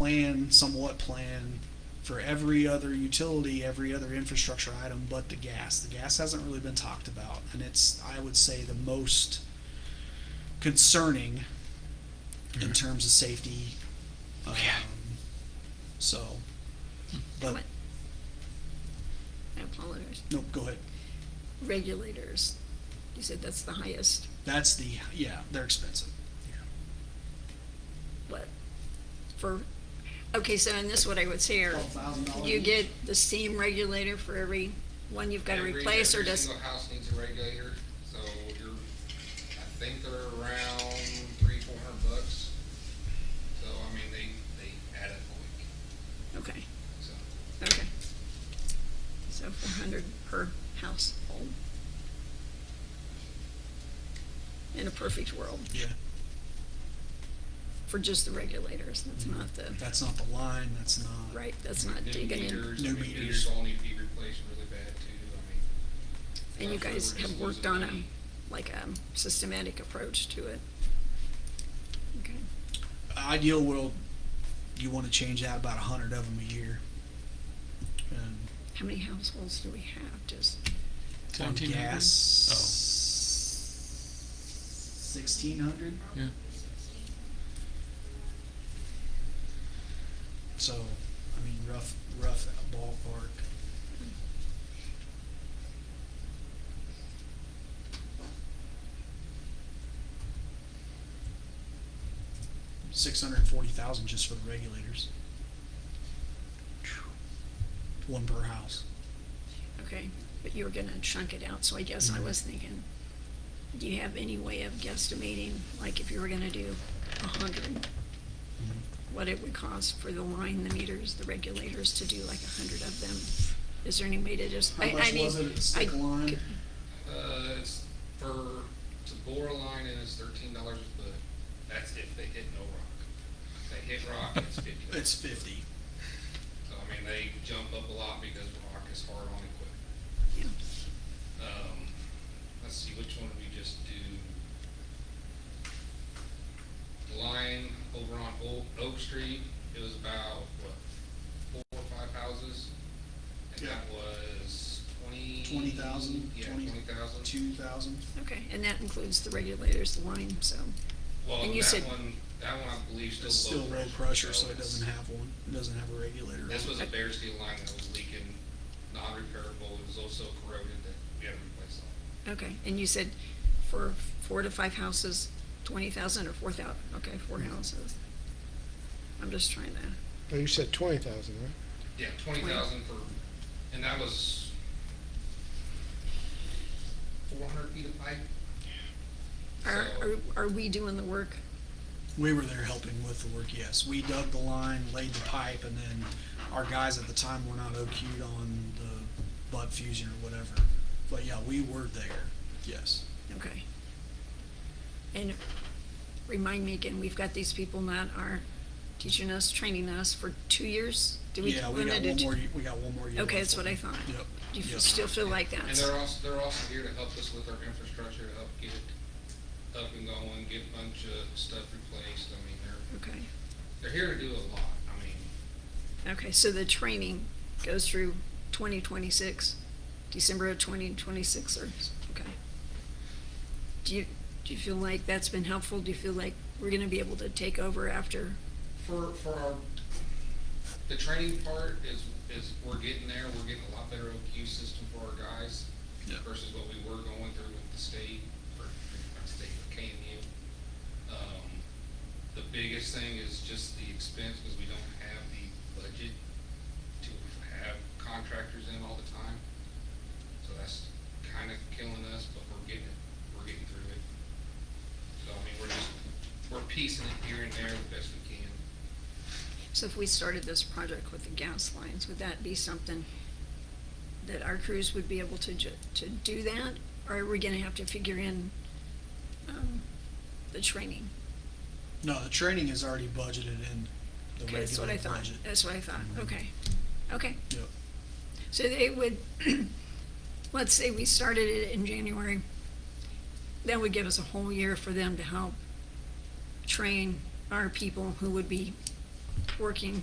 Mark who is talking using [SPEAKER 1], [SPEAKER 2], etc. [SPEAKER 1] plan, somewhat plan, for every other utility, every other infrastructure item but the gas. The gas hasn't really been talked about, and it's, I would say, the most concerning in terms of safety.
[SPEAKER 2] Yeah.
[SPEAKER 1] Um, So, but,
[SPEAKER 3] What? I apologize.
[SPEAKER 1] no, go ahead.
[SPEAKER 3] Regulators, you said that's the highest,
[SPEAKER 1] That's the, yeah, they're expensive.
[SPEAKER 3] what, for, okay, so in this, what I would say are,
[SPEAKER 1] $12,000
[SPEAKER 3] you
[SPEAKER 1] each.
[SPEAKER 3] get the steam regulator for every one you've gotta
[SPEAKER 2] Every-
[SPEAKER 3] replace, or does?
[SPEAKER 2] Every single house needs a regulator, so you're, I think they're around three, four hundred bucks. So, I mean, they, they add up quick,
[SPEAKER 3] Okay,
[SPEAKER 2] so.
[SPEAKER 3] okay. So four hundred per household. In a perfect world,
[SPEAKER 1] Yeah,
[SPEAKER 3] for just the regulators, that's not the,
[SPEAKER 1] that's not the line, that's not.
[SPEAKER 3] right, that's not
[SPEAKER 2] New
[SPEAKER 3] digging in.
[SPEAKER 2] meters, I
[SPEAKER 1] New
[SPEAKER 2] mean,
[SPEAKER 1] meters.
[SPEAKER 2] Meters all need to be replaced really bad too, I mean.
[SPEAKER 3] And you
[SPEAKER 2] I'm sure
[SPEAKER 3] guys
[SPEAKER 2] we're
[SPEAKER 3] have
[SPEAKER 2] just
[SPEAKER 3] worked
[SPEAKER 2] losing
[SPEAKER 3] on
[SPEAKER 2] money.
[SPEAKER 3] a, like a systematic approach to it. Okay,
[SPEAKER 1] Ideal world, you wanna change out about a hundred of them a year. And
[SPEAKER 3] how many households do we have, just,
[SPEAKER 1] on
[SPEAKER 4] 1700?
[SPEAKER 1] gas.
[SPEAKER 4] Oh,
[SPEAKER 1] Sixteen hundred,
[SPEAKER 4] yeah.
[SPEAKER 1] so, I mean, rough, rough ballpark. Six hundred and forty thousand just for the regulators. One per house.
[SPEAKER 3] okay, but you were gonna chunk it out, so I guess
[SPEAKER 1] Mm-hmm.
[SPEAKER 3] I was thinking, do you have any way of guesstimating, like if you were gonna do a hundred,
[SPEAKER 4] Mm-hmm.
[SPEAKER 3] what it would cost for the line, the meters, the regulators to do like a hundred of them? Is there any way to just,
[SPEAKER 1] How
[SPEAKER 3] I, I
[SPEAKER 1] much
[SPEAKER 3] mean,
[SPEAKER 1] was it at stick
[SPEAKER 3] I
[SPEAKER 1] line?
[SPEAKER 3] could-
[SPEAKER 2] Uh, it's for, to bore a line in is thirteen dollars a foot. That's if they hit no rock. If they hit rock, it's fifty.
[SPEAKER 1] It's fifty.
[SPEAKER 2] So, I mean, they jump up a lot because rock is hard on equipment.
[SPEAKER 3] yeah.
[SPEAKER 2] Um, let's see, which one did we just do? Line over on Oak, Oak Street, it was about, what, four or five houses? And
[SPEAKER 1] Yeah.
[SPEAKER 2] that was twenty?
[SPEAKER 1] Twenty thousand,
[SPEAKER 2] Yeah,
[SPEAKER 1] twenty-
[SPEAKER 2] twenty thousand.
[SPEAKER 1] Two thousand.
[SPEAKER 3] Okay, and that includes the regulators, the line, so,
[SPEAKER 2] Well,
[SPEAKER 3] and you
[SPEAKER 2] that
[SPEAKER 3] said-
[SPEAKER 2] one, that one I believe
[SPEAKER 1] It's still
[SPEAKER 2] still low
[SPEAKER 1] low
[SPEAKER 2] pressure.
[SPEAKER 1] pressure, so it
[SPEAKER 2] it's-
[SPEAKER 1] doesn't have one, it doesn't have a regulator. on
[SPEAKER 2] This
[SPEAKER 1] it.
[SPEAKER 2] was a bare steel line that was leaking, non-repairable, it was also corroded that we had to replace all.
[SPEAKER 3] okay, and you said for four to five houses, twenty thousand or four thousand. okay, four
[SPEAKER 1] Mm-hmm.
[SPEAKER 3] houses. I'm just trying to,
[SPEAKER 5] No, Oh, you said twenty thousand, right?
[SPEAKER 2] Yeah, twenty thousand for, and that was four hundred feet of pipe.
[SPEAKER 3] are,
[SPEAKER 2] So-
[SPEAKER 3] are, are we doing the work?
[SPEAKER 1] We were there helping with the work, yes. We dug the line, laid the pipe, and then our guys at the time were not OQ'd on the butt fusion or whatever. But yeah, we were there, yes.
[SPEAKER 3] Okay. And remind me again, we've got these people that are teaching us, training us for two years? Do we
[SPEAKER 1] Yeah, we got
[SPEAKER 3] limit it
[SPEAKER 1] one
[SPEAKER 3] to-
[SPEAKER 1] more, ye- we got one more year.
[SPEAKER 3] Okay,
[SPEAKER 1] left
[SPEAKER 3] that's what
[SPEAKER 1] on
[SPEAKER 3] I
[SPEAKER 1] it.
[SPEAKER 3] thought.
[SPEAKER 1] Yep,
[SPEAKER 3] Do you
[SPEAKER 1] yep.
[SPEAKER 3] f- still feel like
[SPEAKER 2] And
[SPEAKER 3] that's,
[SPEAKER 2] they're also, they're also here to help us with our infrastructure, to help get it up and going, get a bunch of stuff replaced, I mean, they're,
[SPEAKER 3] okay.
[SPEAKER 2] they're here to do a lot, I mean,
[SPEAKER 3] Okay, so the training goes through twenty twenty-six, December of twenty twenty-six, or, okay. Do you, do you feel like that's been helpful? Do you feel like we're gonna be able to take over after?
[SPEAKER 2] for, for our, the training part is, is, we're getting there, we're getting a lot better OQ system for our guys
[SPEAKER 1] Yeah.
[SPEAKER 2] versus what we were going through with the state, or not state, but KMU. Um, the biggest thing is just the expense, because we don't have the budget to have contractors in all the time. So that's kind of killing us, but we're getting it, we're getting through it. So, I mean, we're just, we're piecing it here and there the best we can.
[SPEAKER 3] So if we started this project with the gas lines, would that be something that our crews would be able to ju- to do that? Or are we gonna have to figure in, um, the training?
[SPEAKER 1] No, the training is already budgeted in the
[SPEAKER 3] Okay, that's what
[SPEAKER 1] regular
[SPEAKER 3] I thought,
[SPEAKER 1] budget. Mm-hmm.
[SPEAKER 3] that's what I thought, okay, okay.
[SPEAKER 1] Yep.
[SPEAKER 3] So they would, let's say we started it in January, that would give us a whole year for them to help train our people who would be working